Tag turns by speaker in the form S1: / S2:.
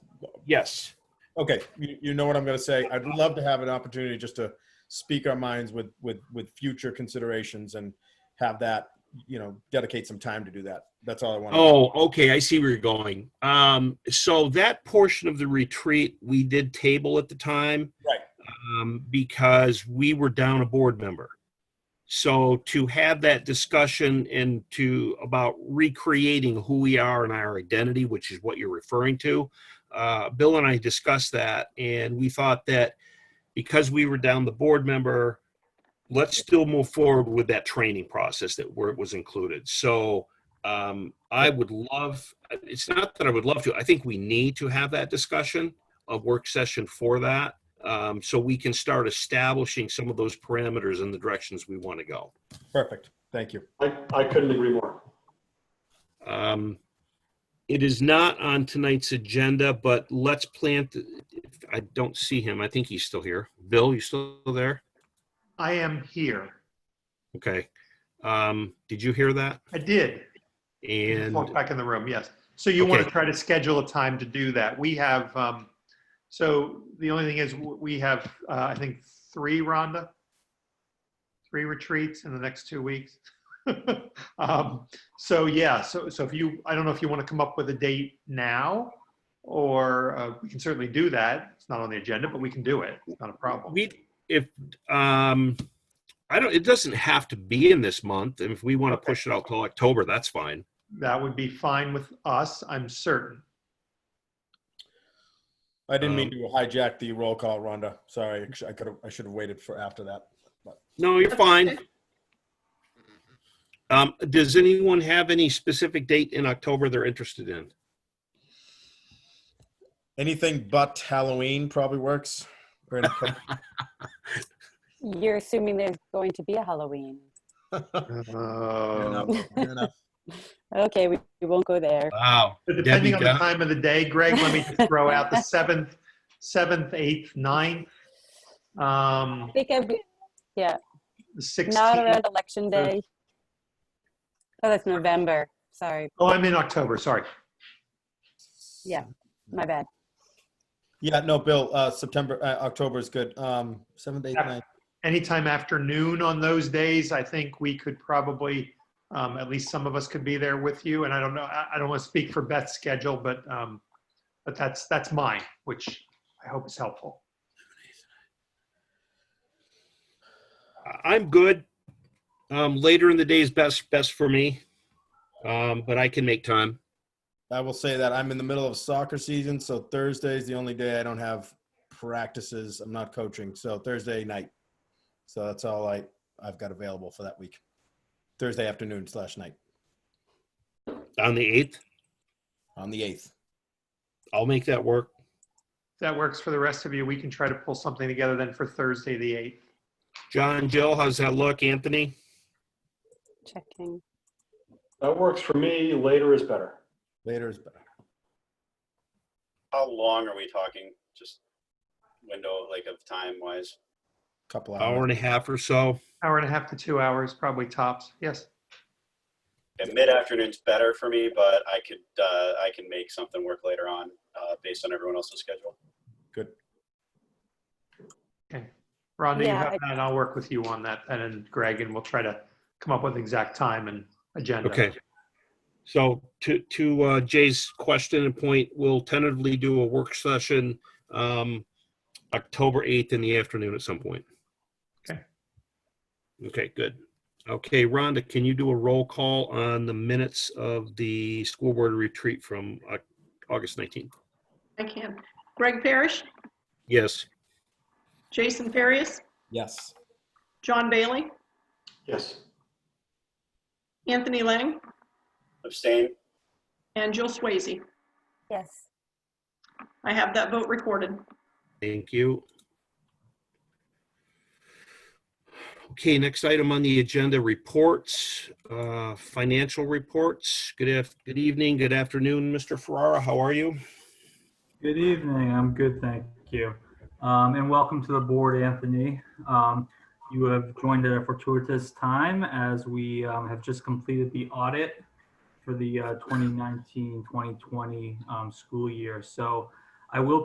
S1: Yes.
S2: Okay, you, you know what I'm gonna say. I'd love to have an opportunity just to speak our minds with, with, with future considerations and have that, you know, dedicate some time to do that. That's all I want.
S1: Oh, okay. I see where you're going. Um, so that portion of the retreat we did table at the time.
S2: Right.
S1: Um, because we were down a board member. So to have that discussion and to about recreating who we are and our identity, which is what you're referring to, uh, Bill and I discussed that, and we thought that because we were down the board member, let's still move forward with that training process that where it was included. So um, I would love. It's not that I would love to. I think we need to have that discussion, a work session for that, um, so we can start establishing some of those parameters and the directions we want to go.
S2: Perfect. Thank you.
S3: I, I couldn't agree more.
S1: Um, it is not on tonight's agenda, but let's plant. I don't see him. I think he's still here. Bill, you still there?
S4: I am here.
S1: Okay. Um, did you hear that?
S4: I did.
S1: And
S4: Walk back in the room, yes. So you want to
S1: Okay.
S4: try to schedule a time to do that. We have, um, so the only thing is, w- we have, uh, I think, three, Rhonda? Three retreats in the next two weeks. Um, So, yeah, so, so if you, I don't know if you want to come up with a date now, or uh, we can certainly do that. It's not on the agenda, but we can do it. It's not a problem.
S1: we, if, um, I don't, it doesn't have to be in this month. And if we want to push it out till October, that's fine.
S4: That would be fine with us, I'm certain.
S2: I didn't mean to hijack the roll call, Rhonda. Sorry, I could have, I should have waited for after that.
S1: No, you're fine. Um, does anyone have any specific date in October they're interested in?
S2: Anything but Halloween probably works. We're in-
S5: You're assuming there's going to be a Halloween.
S2: Fair
S4: Uh,
S2: enough, fair enough.
S5: Okay, we, we won't go there.
S1: Wow.
S4: But Depending
S1: Debbie,
S4: on the
S1: go-
S4: time of the day, Greg, let me just throw out the seventh, seventh, eighth, ninth, um,
S5: I think I'd be
S4: the
S5: not
S4: sixteenth.
S5: around election
S4: so-
S5: day. Oh, that's November. Sorry,
S4: Oh, I'm in October, sorry.
S5: my bad.
S2: Yeah, no, Bill, uh, September, uh, October is good. Um, seventh, eighth,
S4: Yeah.
S2: ninth.
S4: Anytime after noon on those days, I think we could probably, um, at least some of us could be there with you. And I don't know, I, I don't want to speak for Beth's schedule, but, um, but that's, that's mine, which I hope is helpful.
S1: I'm good. Um, later in the day is best, best for me. Um, but I can make time.
S2: I will say that I'm in the middle of soccer season, so Thursday is the only day I don't have practices. I'm not coaching, so Thursday night. So that's all I I've got available for that week. Thursday afternoon slash night
S1: On the eighth,
S2: on the eighth.
S1: I'll make that work.
S4: If that works for the rest of you, we can try to pull something together then for Thursday, the eighth.
S1: John, Jill, how's that look? Anthony?
S5: Checking.
S3: That works for me. Later is better.
S2: Later is better.
S6: How long are we talking? Just window like of time wise?
S2: Couple hours.
S1: Hour and a half or so.
S4: Hour and a half to two hours, probably tops. Yes.
S6: Okay, Mid afternoon's better for me, but I could uh, I can make something work later on uh, based on everyone else's schedule.
S4: Rhonda, you
S5: Yeah,
S4: have
S5: I-
S4: that, and I'll work with you on that, then, and Greg, and we'll try to come up with exact time and agenda.
S1: Okay. So to, to uh, Jay's question and point, we'll tentatively do a work session, um, October 8th in the afternoon at some point.
S4: Okay.
S1: Okay, good. Okay, Rhonda, can you do a roll call on the minutes of the school board retreat from uh, August 19th?
S7: I can. Greg Parrish,
S1: Yes.
S7: Jason Farias,
S2: Yes.
S7: John Bailey,
S3: Yes.
S7: Anthony Lang,
S6: Abstain.
S7: and Jill Swayze.
S5: Yes.
S7: I have that vote recorded.
S1: Thank you. Okay, next item on the agenda, reports, uh, financial reports. Good af, good evening, good afternoon, Mr. Ferrara, how are you?
S8: Good evening. I'm good, thank you. Um, and welcome to the board, Anthony. Um, you have joined at a fortuitous time as we um, have just completed the audit for the uh, 2019-2020 um, school year. So I will